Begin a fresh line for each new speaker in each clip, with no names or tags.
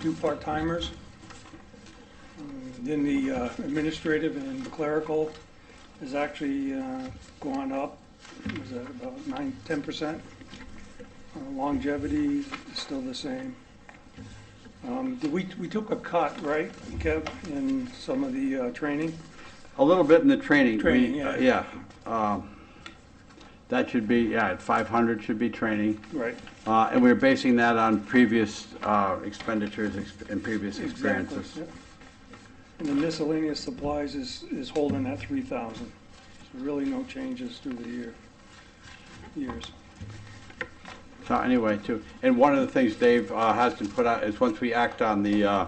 two part-timers. Um, Then the uh, administrative and clerical has actually uh, gone up, was that about nine, 10%? Uh, Longevity is still the same. Um, Did we, we took a cut, right, Kev, in some of the uh, training?
A little bit in the training. we- uh,
Training, yeah.
Yeah. um, That should be, yeah, at 500 should be training.
Right,
Uh, And we're basing that on previous uh, expenditures ex- and previous
exactly.
experiences.
yeah. And the miscellaneous supplies is, is holding at 3,000. So Really no changes through the year, years.
So anyway, too, and one of the things Dave uh, has to put out is once we act on the, uh,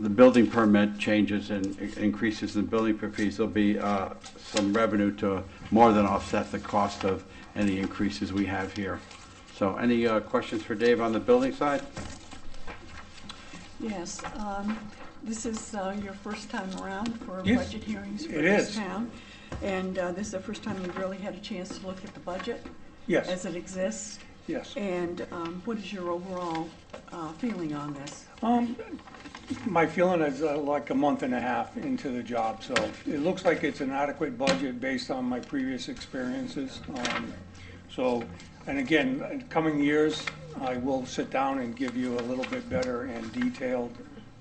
the building permit changes and i- increases in building per fees, there'll be uh, some revenue to more than offset the cost of any increases we have here. So any uh, questions for Dave on the building side?
Yes, um, this is uh, your first time around for
Yes,
budget hearings for
it
this
is.
town. And uh, this is the first time we've really had a chance to look at the budget as
Yes,
it exists.
yes.
And um, what is your overall uh, feeling on this?
Um, my feeling is uh, like a month and a half into the job, so it looks like it's an adequate budget based on my previous experiences. Um, So, and again, in coming years, I will sit down and give you a little bit better and detailed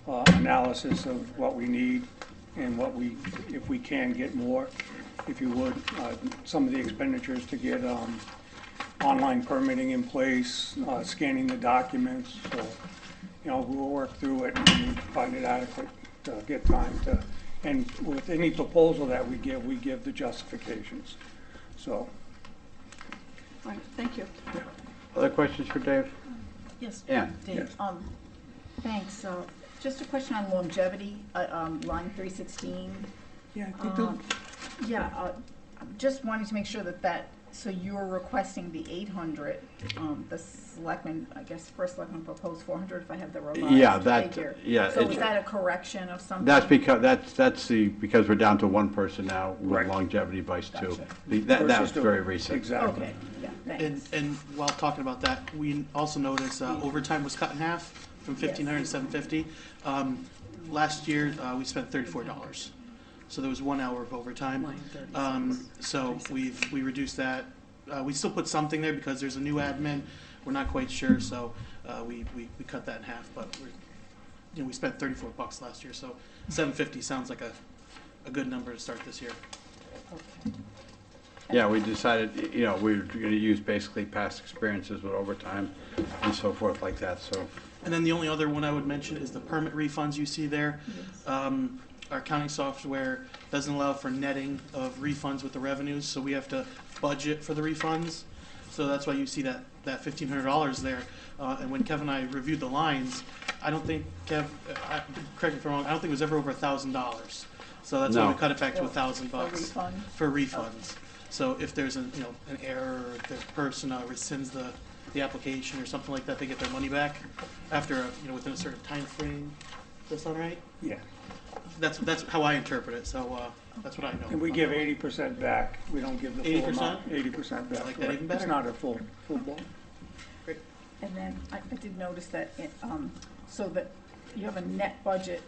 uh, analysis of what we need and what we, if we can get more, if you would, uh, some of the expenditures to get um, online permitting in place, uh, scanning the documents, so, you know, we'll work through it and find it adequate to get time to, and with any proposal that we give, we give the justifications, so.
All right, thank you.
Other questions for Dave?
Yes.
Ann?
Dave,
Yes.
um, thanks. Uh, Just a question on longevity, uh, um, line 316.
Yeah,
Uh-huh.
Um, Yeah, uh, I'm just wanting to make sure that that, so you're requesting the 800, um, the selectmen, I guess, first selectman proposed 400, if I have the
Yeah,
revised
that-
figure.
yeah,
So
it-
was that a correction of something?
That's because, that's, that's the, because we're down to one person now with
Right.
longevity vice two.
Gotcha.
The- That, that was very recent.
Exactly.
Okay, yeah,
And,
thanks.
and while talking about that, we also noticed uh, overtime was cut in half from fifteen hundred to seven fifty. Um, last year, uh, we spent thirty-four dollars. So there was one hour of overtime.
Line 36.
Um, so we've, we reduced that. Uh, we still put something there because there's a new admin. We're not quite sure, so, uh, we, we, we cut that in half, but we're, you know, we spent thirty-four bucks last year, so seven fifty sounds like a, a good number to start this year.
Okay.
Yeah, we decided, y- you know, we were gonna use basically past experiences with overtime and so forth like that, so.
And then the only other one I would mention is the permit refunds you see there.
Yes.
Um, our accounting software doesn't allow for netting of refunds with the revenues, so we have to budget for the refunds. So that's why you see that, that fifteen hundred dollars there. Uh, and when Kev and I reviewed the lines, I don't think, Kev, uh, I, I- correct me if I'm wrong, I don't think it was ever over a thousand dollars. So that's why
No.
we cut it back to a
For-
thousand
for
bucks.
refunds?
For refunds. So if there's a, you know, an error, or if the person uh, rescinds the, the application or something like that, they get their money back after, a you know, within a certain time frame. Does that sound right?
Yeah,
That's, that's how I interpret it, so, uh, that's what I know.
and we give eighty percent back, we don't give the full amount. Eighty percent back.
I like that
right.
even
It's
better.
not a full, full blow.
And then I, I did notice that, it, um, so that you have a net budget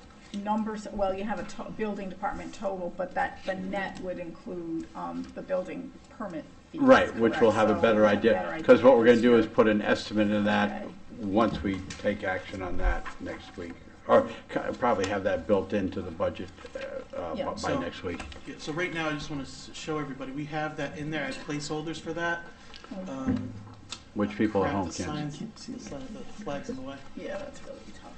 numbers, well, you have a to- building department total, but that, the net would include, um, the building permit fees.
Right, which we'll
correct?
have a
So
better
we'll have a
idea,
better
because what we're gonna
this
do
year.
is put an estimate in that
Okay.
once we take action on that next week. Or c- probably have that built into the budget uh, uh,
Yeah.
by
So-
next week.
Yeah, so right now, I just wanna s- show everybody, we have that in there, I have placeholders for that. Um,
Which people at
crap,
home
the
can.
signs- The sign- the flag's in the way.
Yeah, that's really tough.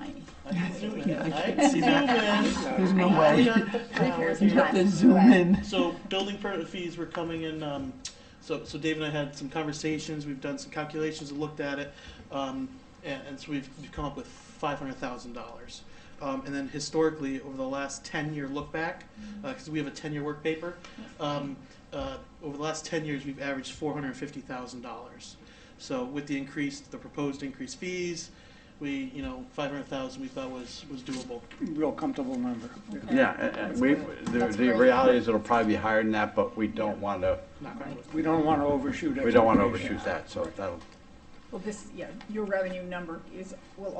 That's, uh, That's tiny.
I can zoom in. I can see that.
Yeah,
No
I
way.
got the powers,
You have
but-
to zoom in.
So building permit fees were coming in, um, so, so Dave and I had some conversations, we've done some calculations and looked at it. Um, and, and so we've, we've come up with five hundred thousand dollars. Um, and then historically, over the last ten-year look back, uh 'cause cause we have a ten-year work paper, um, uh, over the last ten years, we've averaged four hundred and fifty thousand dollars. So with the increase, the proposed increased fees, we, you know, five hundred thousand we thought was, was doable.
Real comfortable number. Yeah.
Yeah, and- and we, the,
That's
the
great.
reality is it'll probably be higher than that, but we don't wanna,
Not gonna-
We don't want to overshoot.
we don't wanna
expectations.
overshoot that, so that'll,
Well, this, yeah, your revenue number is, will